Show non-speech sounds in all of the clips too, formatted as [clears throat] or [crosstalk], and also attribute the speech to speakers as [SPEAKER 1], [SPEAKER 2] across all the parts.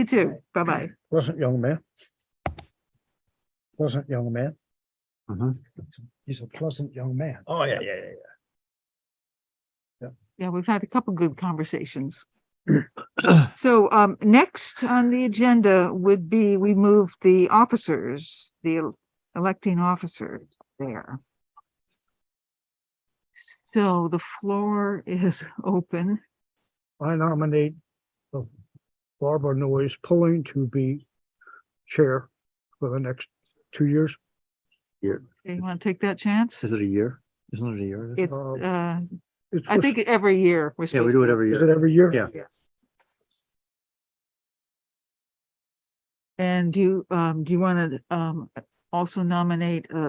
[SPEAKER 1] You too. Bye-bye.
[SPEAKER 2] Pleasant young man. Pleasant young man.
[SPEAKER 3] Mhm.
[SPEAKER 2] He's a pleasant young man.
[SPEAKER 3] Oh, yeah, yeah, yeah.
[SPEAKER 1] Yeah, we've had a couple good
[SPEAKER 3] [clears throat]
[SPEAKER 1] conversations. So um, next on the agenda would be, we move the officers, the el- electing officers there. So the floor is open.
[SPEAKER 2] I nominate uh, Barbara Noyes Pulling to be chair for the next two years.
[SPEAKER 1] You want to take that chance?
[SPEAKER 3] Is it a year? Isn't it a year?
[SPEAKER 1] It's,
[SPEAKER 2] Uh,
[SPEAKER 1] uh,
[SPEAKER 2] It's
[SPEAKER 1] I
[SPEAKER 2] just-
[SPEAKER 1] think every year. we're
[SPEAKER 3] Yeah, we
[SPEAKER 1] supposed-
[SPEAKER 3] do it every
[SPEAKER 2] Is it
[SPEAKER 3] year.
[SPEAKER 2] every year?
[SPEAKER 3] Yeah.
[SPEAKER 1] And do, you, um, do you want to, um, also nominate, uh,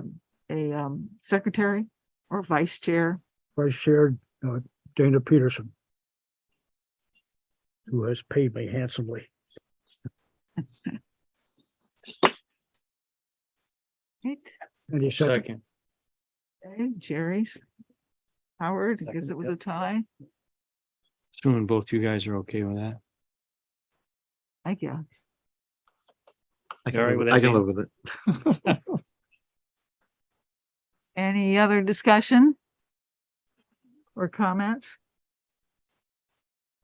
[SPEAKER 1] a, um, secretary or vice chair?
[SPEAKER 2] Vice Chair uh, Dana Peterson. Who has paid me handsomely.
[SPEAKER 1] Right.
[SPEAKER 2] Any second,
[SPEAKER 1] Okay, Jerry's. Howard, because
[SPEAKER 3] Second,
[SPEAKER 1] it was a tie,
[SPEAKER 4] Assuming both you guys are okay with that.
[SPEAKER 1] I guess.
[SPEAKER 3] I
[SPEAKER 4] All right,
[SPEAKER 3] can
[SPEAKER 4] with
[SPEAKER 3] live-
[SPEAKER 4] that
[SPEAKER 3] I can
[SPEAKER 4] being-
[SPEAKER 3] live with it.
[SPEAKER 1] Any other discussion? Or comments?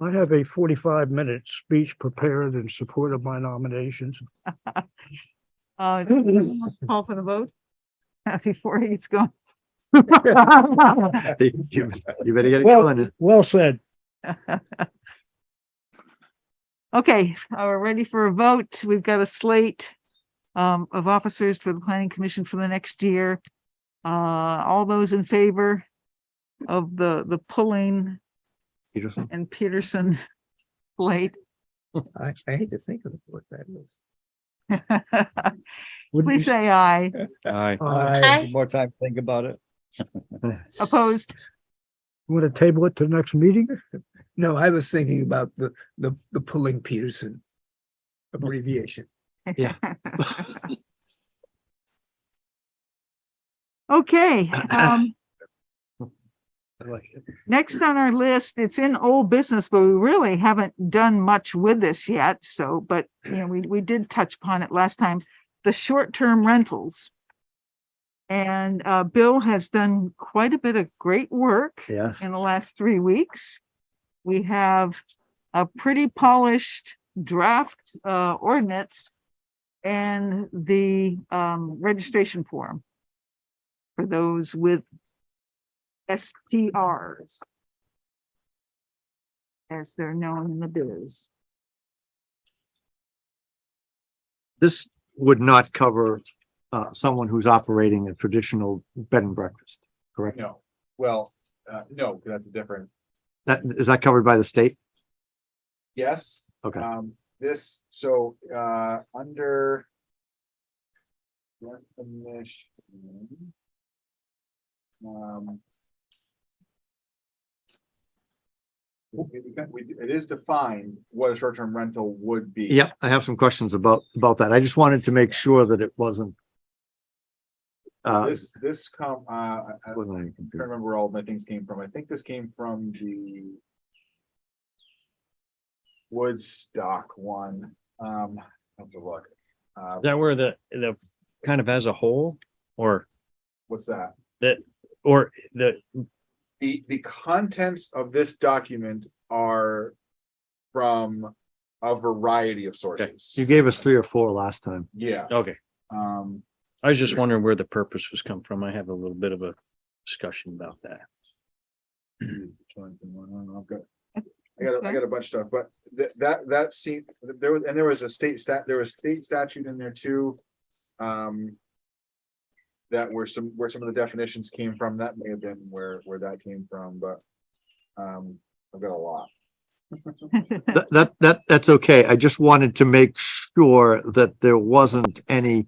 [SPEAKER 2] I have a forty-five minute speech prepared in support of my nominations.
[SPEAKER 1] Uh, call for the vote? [laughs] Before he gets [laughs] going.
[SPEAKER 3] You [laughs] you better get it
[SPEAKER 2] Well-
[SPEAKER 3] going.
[SPEAKER 2] Well said.
[SPEAKER 1] Okay, uh, we're ready for a vote. We've got a slate um, of officers for the planning commission for the next year. Uh, all those in favor of the, the pulling
[SPEAKER 3] Peterson.
[SPEAKER 1] and Peterson [laughs] slate? [laughs]
[SPEAKER 3] I, I hate to think of what that is.
[SPEAKER 2] Wouldn't
[SPEAKER 1] Please
[SPEAKER 2] be-
[SPEAKER 1] say aye.
[SPEAKER 4] Aye.
[SPEAKER 2] I
[SPEAKER 3] More time to think about [laughs] it.
[SPEAKER 1] Opposed?
[SPEAKER 2] want to table it to the next meeting.
[SPEAKER 5] No, I was thinking about the, the, the pulling Peterson abbreviation.
[SPEAKER 1] Okay, um, next on our list, it's in old business, but we really haven't done much with this yet, so, but, you know, we, we did touch upon it last time, the short-term rentals. And, uh, Bill has done quite a bit of great work
[SPEAKER 3] [laughs] Yeah,
[SPEAKER 1] in the last three weeks. We have a pretty polished draft uh, ordinance and the um, registration form for those with STRs, as they're known in the biz.
[SPEAKER 3] this would not cover uh, someone who's operating a traditional bed and breakfast, correct?
[SPEAKER 6] No, well, uh, no, 'cause that's a different,
[SPEAKER 3] That, is that covered by the state?
[SPEAKER 6] yes.
[SPEAKER 3] Okay.
[SPEAKER 6] Um, this, so, uh, under. Definition. Um. It it- it is defined what a short-term rental would be.
[SPEAKER 3] Yeah, I have some questions about, about that. I just wanted to make sure that it wasn't. Uh,
[SPEAKER 6] This, this come, uh, I I can't
[SPEAKER 3] wasn't any confusion.
[SPEAKER 6] remember where all my things came from. I think this came from the. Woodstock one, um, I'll have to look. Uh,
[SPEAKER 4] Is that where the, the kind of as a whole or,
[SPEAKER 6] what's that?
[SPEAKER 4] or the,
[SPEAKER 6] The, the contents of this document are from a variety of sources.
[SPEAKER 3] you gave us three or four last
[SPEAKER 6] [laughs]
[SPEAKER 3] time.
[SPEAKER 6] Yeah,
[SPEAKER 4] okay.
[SPEAKER 6] um, [clears throat]
[SPEAKER 4] I was just wondering where the purpose was come from. I have a little bit of a discussion about that.
[SPEAKER 6] I've got, I got, a- I got a bunch of stuff, but that, that, that seemed, there was, and there was a state stat, there was state statute in there too. Um. That were some, where some of the definitions came from, that may have been where, where that came from, but. Um, I've got a lot.
[SPEAKER 3] That, that, that, that's okay. I just wanted to make sure that there wasn't any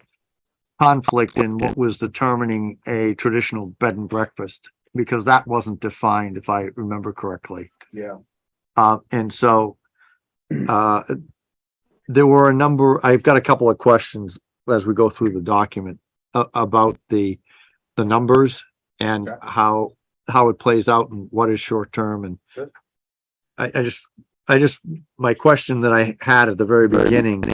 [SPEAKER 3] conflict in what was determining a traditional bed and breakfast, because that wasn't defined, if I remember correctly.
[SPEAKER 6] Yeah,
[SPEAKER 3] Uh, and
[SPEAKER 6] [clears throat]
[SPEAKER 3] so, uh, there were a number, I've got a couple of questions as we go through the document a- about the, the numbers and
[SPEAKER 6] Okay.
[SPEAKER 3] how, how it plays out and what is short-term and
[SPEAKER 6] Sure.
[SPEAKER 3] I, I just, I just, my question that I had at the very beginning